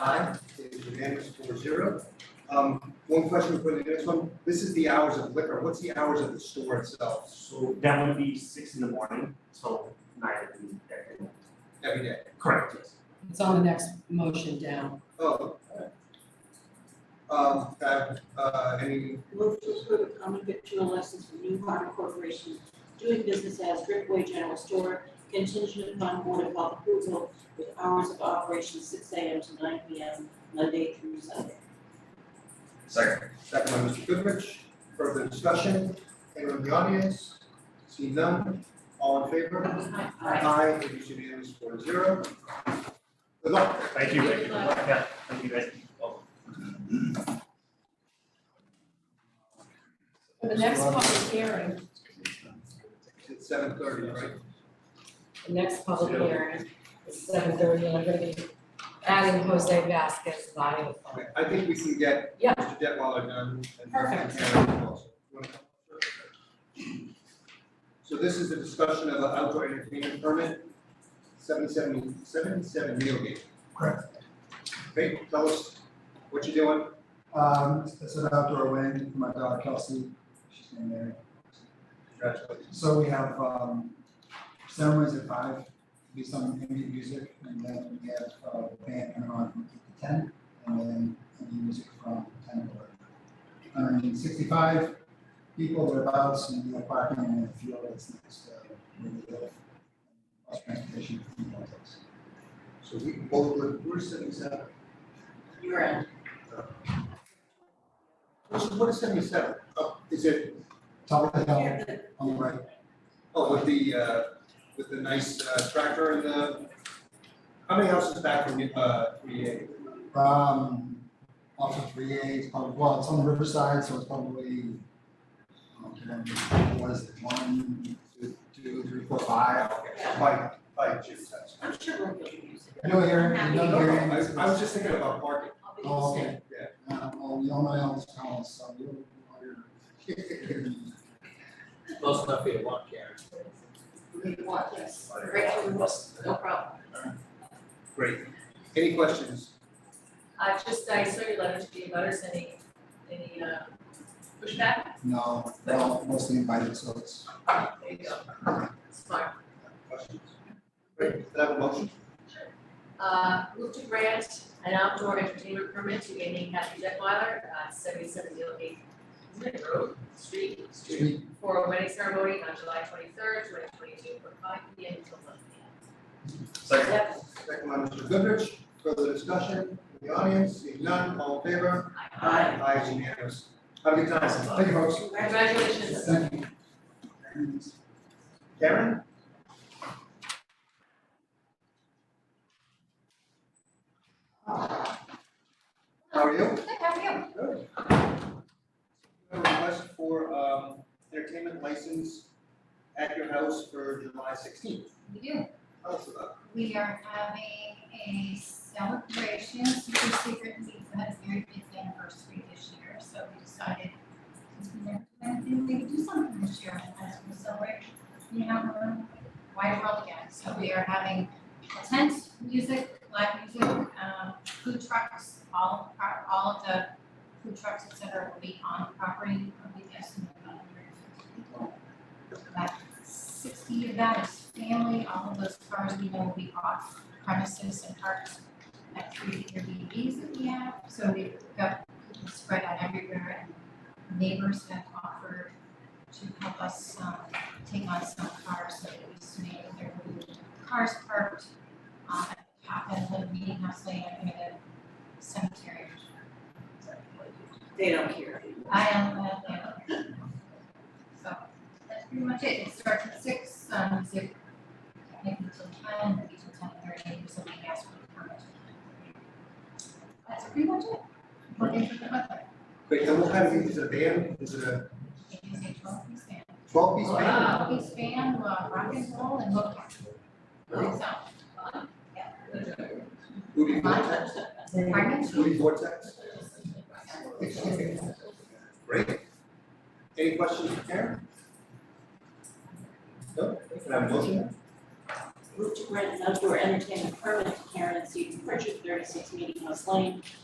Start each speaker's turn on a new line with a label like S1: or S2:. S1: Aye, it is unanimous four zero. Um, one question for the next one, this is the hours of liquor, what's the hours of the store itself
S2: So that would be six in the morning till nine in the afternoon.
S1: every day?
S2: Correct, yes.
S3: It's on the next motion down.
S1: Oh, alright. Um, have, uh, any,
S4: Move to approve a common victual license for New Harmon Corporation doing business as Driftway General Store contingent upon Board of Health approval with hours of operation six AM to nine PM, Monday through Sunday.
S5: Second.
S1: second by Mr. Goodrich, further discussion, anyone in the audience? See none, all in favor?
S4: Aye.
S1: Aye, it is unanimous four zero. Good luck.
S2: Thank you, thank you. Yeah, thank you guys. Oh,
S3: For the next public hearing,
S1: It's seven thirty, right?
S3: the next public hearing is seven thirty, and I'm gonna be adding Jose Vasquez live.
S1: Okay, I think we can get
S3: Yeah.
S1: Mr. Detweiler done. and-
S3: Perfect.
S1: and also- So this is a discussion of an outdoor entertainment permit, seven seventy, seven seven Meadowgate.
S6: Correct.
S1: Okay, tell us what you're doing,
S6: Um, it's an outdoor wedding for my daughter Kelsey, she's named Mary.
S1: congratulations.
S6: So we have, um, ceremonies at five, be some ambient music, and then we have, uh, the band coming on from eight to ten, and then any music from ten to eleven. Hundred and sixty-five people thereabouts, and we have parking in the field that's next to where we live. Bus transportation, and all those.
S1: So we can both live, we're seventy-seven.
S4: You're in.
S1: What is- what is seventy-seven? Oh, is it,
S6: Top of the hill,
S4: Here, the-
S6: on the right,
S1: oh, with the, uh, with the nice uh, tractor and the, how many houses back from, uh, three A?
S6: Um, off of three A, it's probably, well, it's on the riverside, so it's probably, I don't remember, what is it, one, two, two, three, four, five?
S1: Okay, by, by Jim's house.
S4: I'm sure we'll get your music.
S6: No hearing,
S4: Happy.
S1: No, no,
S6: no hearing.
S1: I, I was just thinking about parking.
S4: I'll be
S6: Oh,
S4: listening.
S6: okay, uh, well, we all know Ellen's calling, so you don't know
S7: Close enough for you to walk, Karen.
S4: We want this. Great, we will. no problem.
S1: Great. Any questions?
S8: I just, I saw your letter to the butters, any, any uh, pushback?
S6: No, they're all mostly invited, so it's,
S8: There you go. Smart.
S1: Questions? Great, Can I have a motion.
S8: Uh, move to grant an outdoor entertainment permit to Amy and Kathy Detweiler, uh, seventy-seven Gilgate Road, street,
S6: Street.
S8: for a wedding ceremony on July twenty-third, twenty twenty-two, from five P M until one P M.
S5: Second.
S8: Yep.
S1: Second by Mr. Goodrich, further discussion in the audience, seeing none, all in favor?
S4: Aye.
S1: Aye, it's unanimous. Have a good time, thank you folks.
S8: Congratulations.
S6: thank you.
S1: Karen? How are you?
S8: Good, how are you?
S1: Good. We have a request for um entertainment license at your house for July sixteenth.
S9: We do.
S1: Tell us about
S9: We are having a celebration, super secret pizza has very big anniversary this year, so we decided since we never do anything, we could do something this year as we celebrate, you know, the wide world again. So we are having a tent, music, live music, um, food trucks, all of the pro- all of the food trucks, et cetera, will be on the property, probably estimate about hundred and fifty people about sixty of that is family, all of those cars we know will be off premises and parked at three Airbnbs that we have, so we've got people spread out everywhere and neighbors have offered to help us um take on some cars, so at least maybe there will be cars parked um at the top end of the meeting house lane and near the cemetery.
S4: They don't care.
S9: I am, uh, yeah. So, that's pretty much it, it starts at six, um, music, maybe till ten, maybe till ten thirty, or something else for the permit. That's pretty much it, working for the weather,
S1: it. Wait, and what kind of, is it a band, is it a
S9: it is a twelve piece band.
S1: twelve piece band?
S8: Wow.
S9: Twelve piece band, uh, rock and roll and hook. So,
S1: Woody Vortex?
S9: pardon?
S1: Woody Vortex? Great. Any questions for Karen? No, can I have a motion?
S4: Move to grant an outdoor entertainment permit to Karen and Steve Pritchard, thirty-six Meeting House Lane,